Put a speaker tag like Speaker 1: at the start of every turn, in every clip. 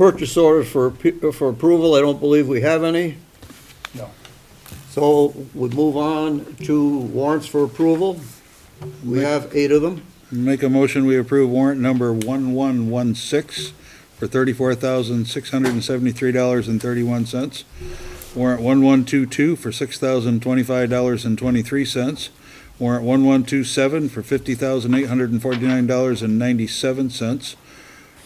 Speaker 1: Purchase orders for, ap- for approval, I don't believe we have any.
Speaker 2: No.
Speaker 1: So we move on to warrants for approval. We have eight of them.
Speaker 3: Make a motion, we approve warrant number 1116 for $34,673.31. Warrant 1122 for $6,025.23. Warrant 1127 for $50,849.97.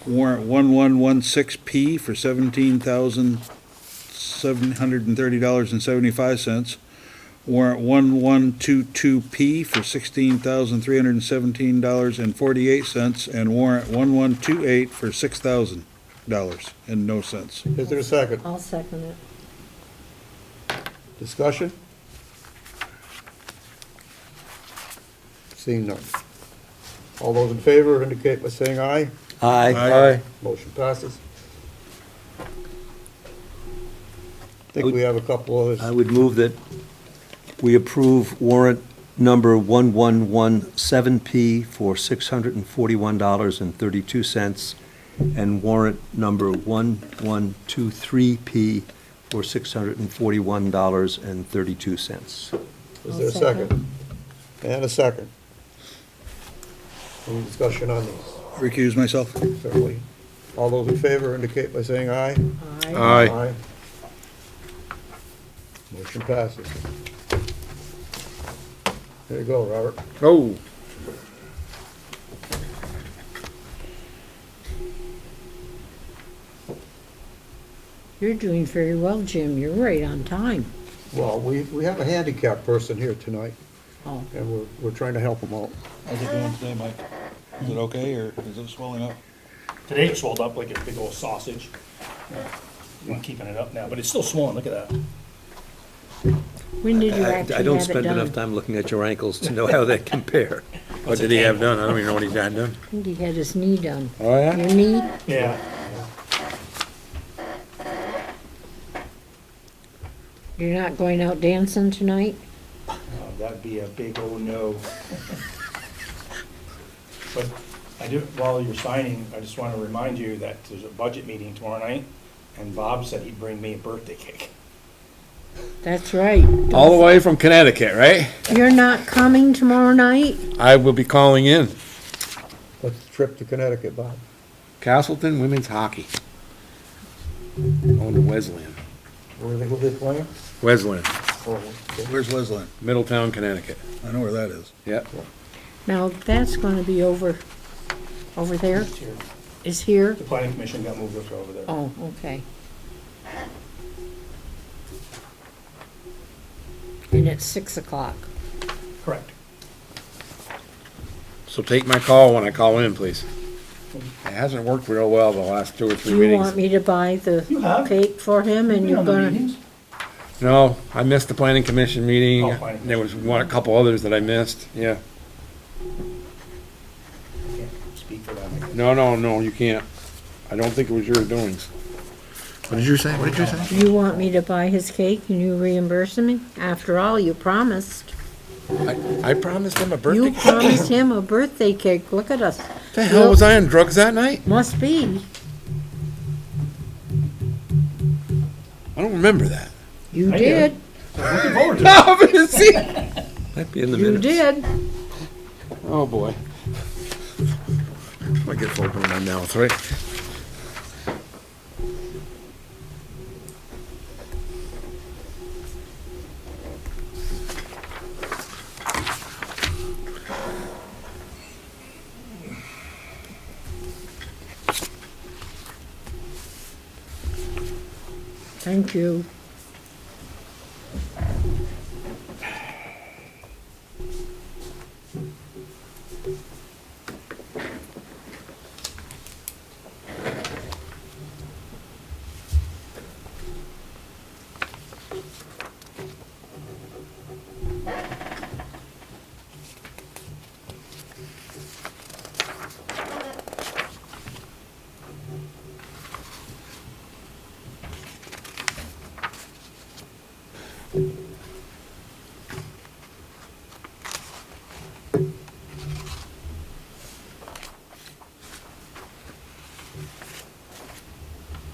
Speaker 3: Warrant 1116P for $17,730.75. Warrant one one two two P for sixteen thousand three hundred and seventeen dollars and forty-eight cents, and warrant one one two eight for six thousand dollars and no cents.
Speaker 1: Is there a second?
Speaker 4: I'll second it.
Speaker 1: Discussion? Seeing none. All those in favor indicate by saying aye.
Speaker 3: Aye.
Speaker 1: Motion passes. I think we have a couple others.
Speaker 5: I would move that we approve warrant number 1117P for $641.32, and warrant number 1123P for $641.32.
Speaker 1: Is there a second? And a second. Any discussion on these?
Speaker 3: Recuse myself.
Speaker 1: Certainly. All those in favor indicate by saying aye.
Speaker 4: Aye.
Speaker 1: Aye. Motion passes. There you go, Robert.
Speaker 2: Oh.
Speaker 4: You're doing very well, Jim. You're right on time.
Speaker 1: Well, we, we have a handicapped person here tonight,
Speaker 4: Oh,
Speaker 1: and we're, we're trying to help him out.
Speaker 3: How's it doing today, Mike? Is it okay, or is it swelling up?
Speaker 2: Today it swelled up like a big old sausage. I'm keeping it up now, but it's still swollen, look at that.
Speaker 4: when did you
Speaker 6: I
Speaker 4: actually
Speaker 6: I don't
Speaker 4: have it
Speaker 6: spend enough
Speaker 4: done?
Speaker 6: time looking at your ankles to know how they compare. What did he have done? I don't even know what he's had done.
Speaker 4: I think he had his knee done.
Speaker 6: Oh,
Speaker 4: Your knee?
Speaker 2: Yeah.
Speaker 4: You're not going out dancing tonight?
Speaker 2: Uh, That'd be a big old no. But I do, while you're signing, I just want to remind you that there's a budget meeting tomorrow night, and Bob said he'd bring me a birthday cake.
Speaker 4: That's right.
Speaker 6: All the way from Connecticut, right?
Speaker 4: You're not coming tomorrow night?
Speaker 6: I will be calling in.
Speaker 1: Let's trip to Connecticut, Bob.
Speaker 6: Castleton Women's Hockey. On to Wesleyan.
Speaker 1: Where they, who they playing?
Speaker 6: Wesleyan,
Speaker 1: Oh, okay.
Speaker 3: Where's Wesleyan?
Speaker 6: Middletown, Connecticut.
Speaker 3: I know where that is.
Speaker 6: Yep.
Speaker 4: Now, that's gonna be over, over there,
Speaker 2: It's here.
Speaker 4: is here?
Speaker 2: The planning commission got moved over there.
Speaker 4: Oh, okay. And it's six o'clock.
Speaker 2: Correct.
Speaker 6: So take my call when I call in, please. It hasn't worked real well the last two or three
Speaker 4: Do you want
Speaker 6: meetings.
Speaker 4: me to buy the
Speaker 2: You have.
Speaker 4: cake for him and
Speaker 2: You've been
Speaker 4: you're
Speaker 2: on the
Speaker 4: gonna?
Speaker 2: meetings.
Speaker 6: No, I missed the planning commission meeting.
Speaker 2: Oh, planning
Speaker 6: There was one, a couple others that I missed, yeah.
Speaker 2: Can't Speak for them. I guess.
Speaker 6: No, no, no, you can't. I don't think it was your doings. What did you say? What did you say?
Speaker 4: You want me to buy his cake and you reimburse me? After all, you promised.
Speaker 6: I promised him a
Speaker 4: You
Speaker 6: birthday.
Speaker 4: promised him a birthday cake. Look at us.
Speaker 6: The hell was I on drugs that night?
Speaker 4: Must be.
Speaker 6: I don't remember that.
Speaker 4: You
Speaker 2: I did.
Speaker 4: did.
Speaker 2: Looking forward to it.
Speaker 6: No, but it's-
Speaker 5: Might be in the
Speaker 4: You
Speaker 5: minutes.
Speaker 4: did.
Speaker 6: Oh, boy. I get food in my mouth, right?
Speaker 4: Thank you.